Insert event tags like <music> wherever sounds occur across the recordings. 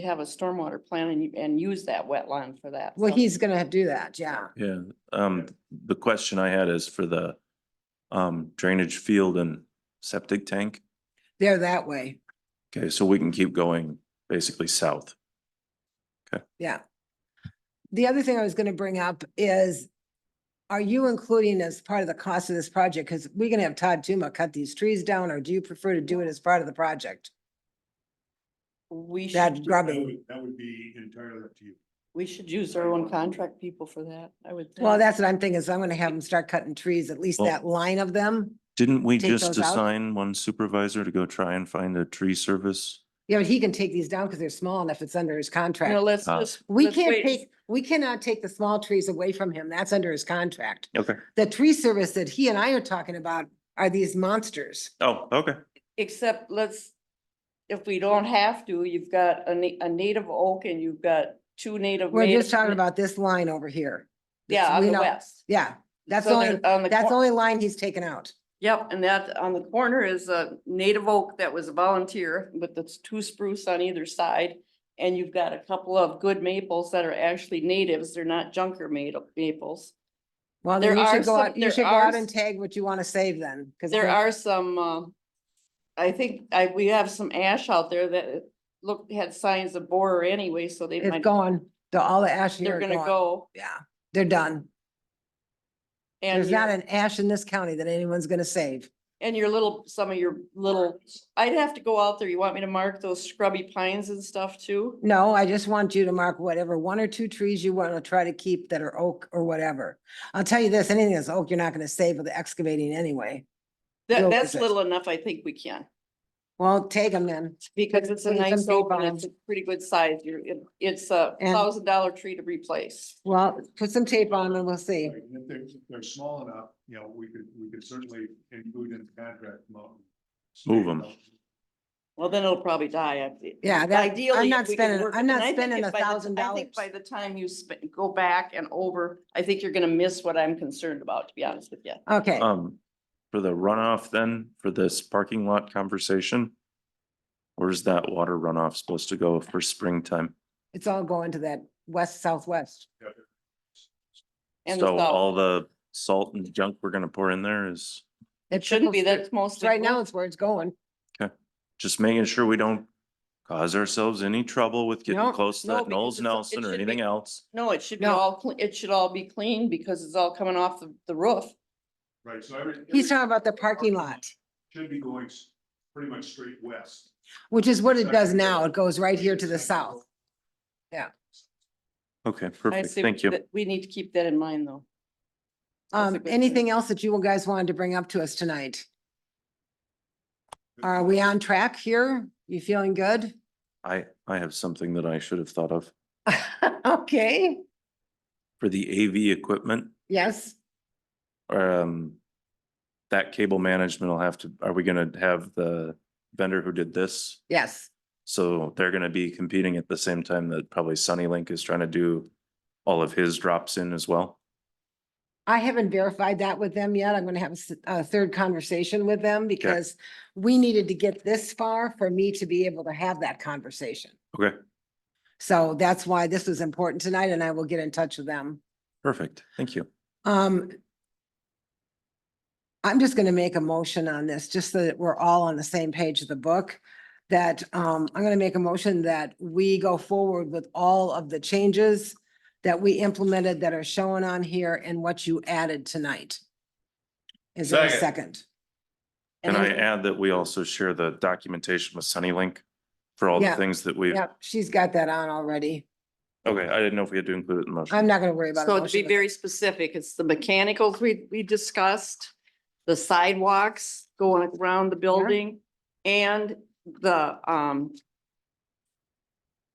have a stormwater plan and, you- and use that wetland for that. Well, so- he's gonna have to do that, yeah. Yeah, um, the question I had is for the um drainage field and septic tank. They're that way, Okay, so we can keep going basically south. yeah. The other thing I was gonna bring up is, are you including as part of the cost of this project? Because we're gonna have Todd Tuma cut these trees down, or do you prefer to do it as part of the project? We That should, That grubbing, would- That would be entirely up to you. we should use our own contract people for that, I would. think. well, that's what I'm thinking, is I'm gonna have them start cutting trees, at least Well- that line of them. Didn't we Take just those out? assign one supervisor to go try and find a tree service? Yeah, but he can take these down because they're small enough, it's under his contract. No, let's Uh, just. We let's can't wait. take, we cannot take the small trees away from him. That's under his contract. Okay. The tree service that he and I are talking about are these monsters. Oh, okay. Except let's, if we don't have to, you've got a na- a native oak and you've got two native. We're native- just talking about this line over here. Yeah, on we the know- west. Yeah, that's So the only, there's- on the that's the cor- only line he's taken out. Yep, and that on the corner is a native oak that was a volunteer, but that's two spruce on either side. And you've got a couple of good maples that are actually natives, they're not junker made maples. Well, then There you are should go some- out, you there should go are out and s- tag what you want to save then. 'cause There then- are some, uh, I think, I, we have some ash out there that looked, had signs of borer anyway, so they It's might, gone. The, all the ash here they're are gonna gone. go. Yeah, they're done. And, There's not your- an ash in this county that anyone's gonna save. and your little, some of your little, I'd have to go out there, you want me to mark those scrubby pines and stuff too? No, I just want you to mark whatever one or two trees you want to try to keep that are oak or whatever. I'll tell you this, anything that's oak, you're not gonna save with the excavating anyway. That, Real that's quick. little enough, I think we can. Well, take them then. Because it's a Put some nice tape oak on and it's a pretty good size. You're, it- it's a And- thousand dollar tree to replace. Well, put some tape on and we'll see. Right, and If they're, if they're small enough, you know, we could, we could certainly include in the contract. mo- Move 'em. Well, then it'll probably die. I think. Yeah, that- Ideally. I'm if not we can spending, work it- I'm and I not think spending a if by the ti- thousand I dollars. think By the time you sp- go back and over, I think you're gonna miss what I'm concerned about, to be honest with you. Okay, Um, for the runoff then, for this parking lot conversation? Where's that water runoff supposed to go for springtime? it's all going to that west southwest. And So the all south. the salt and junk we're gonna pour in there is It shouldn't be, that's mostly. Right now, roof. it's where it's going. just making sure we don't cause ourselves any trouble with getting No, close to no, that because Knowles it's a- it Nelson or should be- anything else. No, it should be No. all, cle- it should all be clean because it's all coming off the, the roof. Right, so every. He's every talking about the parking lot, Should be going s- pretty much straight west. which is what it does now. It goes right here to the south. Okay, I perfect. see Thank you. that We need to keep that in mind, though. That's a Um, good thing. anything else that you guys wanted to bring up to us tonight? Are we on track here? You feeling good? <laughs> I, I have something that I should have thought of Okay, for the AV equipment. yes, Um, that cable management will have to, are we gonna have the vendor who did this? yes. So they're gonna be competing at the same time that probably Sunny Link is trying to do all of his drops in as well. I haven't verified that with them yet. I'm gonna have a s- a third conversation with them because we needed to get this far for me to be able to have that conversation. Okay, So that's why this was important tonight and I will get in touch with them. perfect. Thank you. Um, I'm just gonna make a motion on this, just so that we're all on the same page of the book. That, um, I'm gonna make a motion that we go forward with all of the changes that we implemented that are shown on here and what you added tonight. Is there a Second. second? Can I then- add that we also share the documentation with Sunny Link for all the Yeah. things that we've, Yep, she's got that on already. okay, I didn't know if we had to include it in the motion. I'm not gonna worry about. a So to be motion. very specific, it's the mechanicals we, we discussed, the sidewalks going around the building and the, um,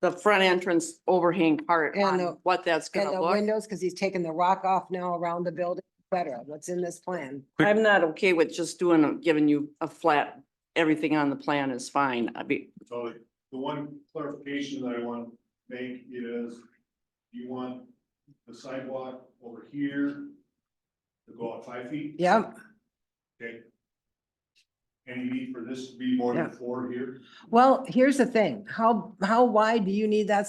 the front entrance overhang part And on the- what that's And gonna the look. windows, because he's taking the rock off now around the building, et cetera, what's in this plan? Quick- I'm not okay with just doing, a giving you a flat, everything on the plan is fine. I'd be, So the one clarification that I want to make is, you want the sidewalk over here to go out five feet? Yep, Okay. And you need for this to be more than four here? Well, here's the thing, how, how wide do you need that